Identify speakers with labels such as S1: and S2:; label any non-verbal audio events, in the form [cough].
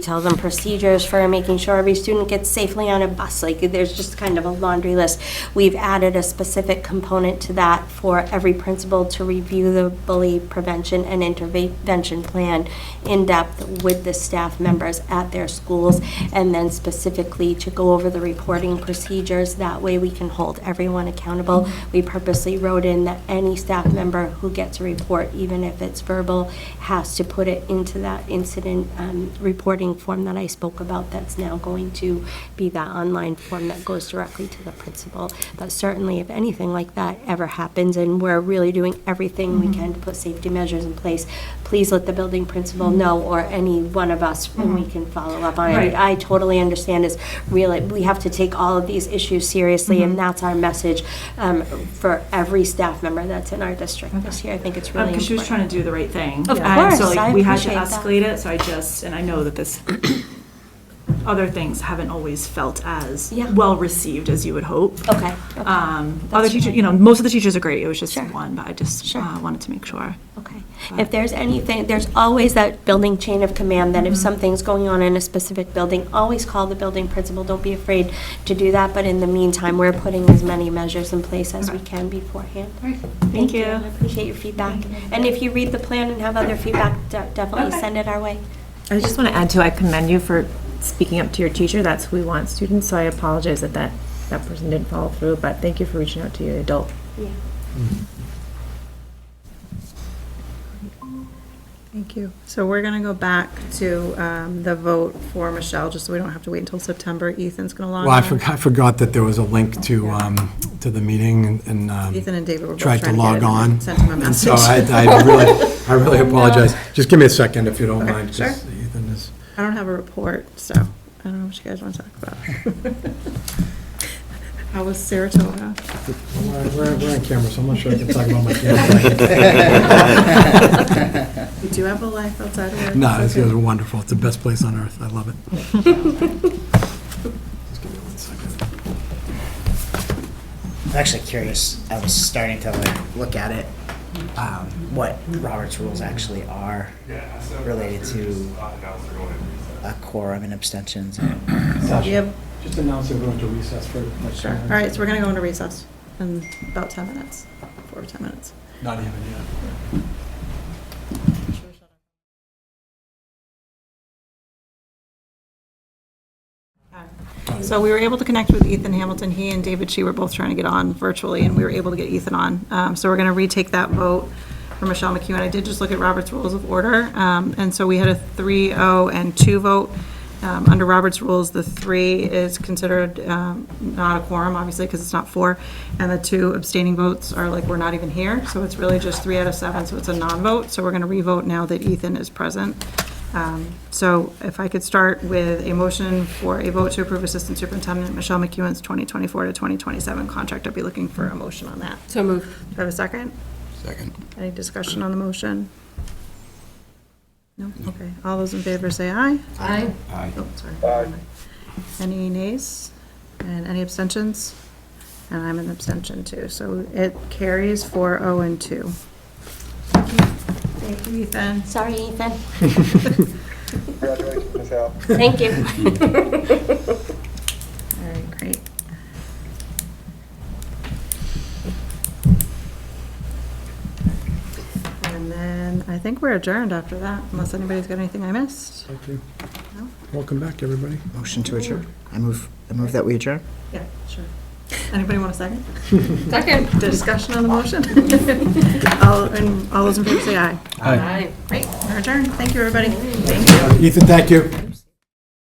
S1: tells them procedures for making sure every student gets safely on a bus. Like, there's just kind of a laundry list. We've added a specific component to that for every principal to review the bully prevention and intervention plan in depth with the staff members at their schools, and then specifically to go over the reporting procedures. That way, we can hold everyone accountable. We purposely wrote in that any staff member who gets a report, even if it's verbal, has to put it into that incident um, reporting form that I spoke about that's now going to be that online form that goes directly to the principal. But certainly, if anything like that ever happens, and we're really doing everything we can to put safety measures in place, please let the building principal know, or any one of us, and we can follow up on it.
S2: Right.
S1: I totally understand is really, we have to take all of these issues seriously,
S2: Mm-hmm.
S1: and that's our message um, for every staff member that's in our district this year. I think it's really important.
S2: Because Uh, Um, she was trying to do the right thing.
S1: Of
S2: And
S1: course,
S2: so
S1: I
S2: like, we had to
S1: appreciate that.
S2: escalate it, so I just, and I know that this, [coughs] other things haven't always felt as
S1: Yeah.
S2: well-received as you would hope.
S1: Okay, okay,
S2: Um,
S1: That's
S2: Other teachers,
S1: fine.
S2: you know, most of the teachers are great, it was just
S1: Sure.
S2: one, but I just
S1: Sure.
S2: uh, wanted to make sure.
S1: okay. If there's anything, there's always that building chain of command, that if
S2: Mm-hmm.
S1: something's going on in a specific building, always call the building principal. Don't be afraid to do that, but in the meantime, we're putting as many measures in place as we can beforehand.
S2: Thank you.
S1: I appreciate your feedback. And if you read the plan and have other feedback, de- definitely
S2: Okay.
S1: send it our way.
S3: I just want to add too, I commend you for speaking up to your teacher. That's who we want students, so I apologize that that, that person didn't follow through, but thank you for reaching out to your adult.
S1: Yeah.
S4: Thank you. So we're going to go back to um, the vote for Michelle, just so we don't have to wait until September. Ethan's going to log on.
S5: Well, I forgot, I forgot that there was a link to, um, to the meeting and- and. um,
S4: Ethan and David were both
S5: tried
S4: trying to get
S5: log
S4: it and
S5: on.
S4: sent him a
S5: And so I,
S4: message.
S5: I really, I [laughs] really apologize. Just give me a second if you don't
S4: Okay,
S5: mind. 'cause
S4: sure.
S5: Ethan is,
S4: [laughs] I don't have a report, so I don't know what you guys want to talk about. How was Saratoga?
S5: we're, we're- we're on camera, so I'm not sure I can talk about oh my camera.
S4: You do have a life outside of work.
S5: No, this
S4: okay.
S5: is wonderful. It's the best place on earth. I love it. Just give me one second.
S6: I'm actually curious. I was starting to like look at it, um, what Robert's rules actually are related to a quorum and abstentions.
S4: Do you have-
S5: Just announce that we're going to recess for. like,
S4: Sure. All right, so we're going to go into recess in about 10 minutes, four or 10 minutes.
S5: Not even yet.
S4: So we were able to connect with Ethan Hamilton. He and David Shi were both trying to get on virtually, and we were able to get Ethan on. Um, So we're going to retake that vote for Michelle McEwen. I did just look at Robert's Rules of Order, um, and so we had a 3-0 and 2 vote. Um, Under Robert's Rules, the 3 is considered um, not a quorum, obviously, because it's not 4, and the 2 abstaining votes are like, we're not even here, so it's really just 3 out of 7, so it's a non-vote. So we're going to re-vote now that Ethan is present. Um, So if I could start with a motion for a vote to approve Assistant Superintendent Michelle McEwen's 2024 to 2027 contract, I'd be looking for a motion on that. So moved. Do I have a second?
S5: Second.
S4: Any discussion on the motion? No? Okay. All those in favor say aye. Aye.
S5: Aye.
S4: Oh, sorry. Aye. Any nays? And any abstentions? And I'm an abstention too, so it carries 4-0 and 2. Thank you, Ethan.
S1: Sorry, Ethan.
S7: Congratulations, Ms. Al.
S1: Thank you.
S4: All right, great. And then I think we're adjourned after that, unless anybody's got anything I missed.
S5: Thank you. Welcome back, everybody.
S6: Motion to adjourn. I move. I move that we adjourn.
S4: Yeah, sure. Anybody want a second? Second. Discussion on the motion? All, and all those in favor say aye.
S5: Aye.
S4: Great, we're adjourned. Thank you, everybody.
S5: Ethan, thank you.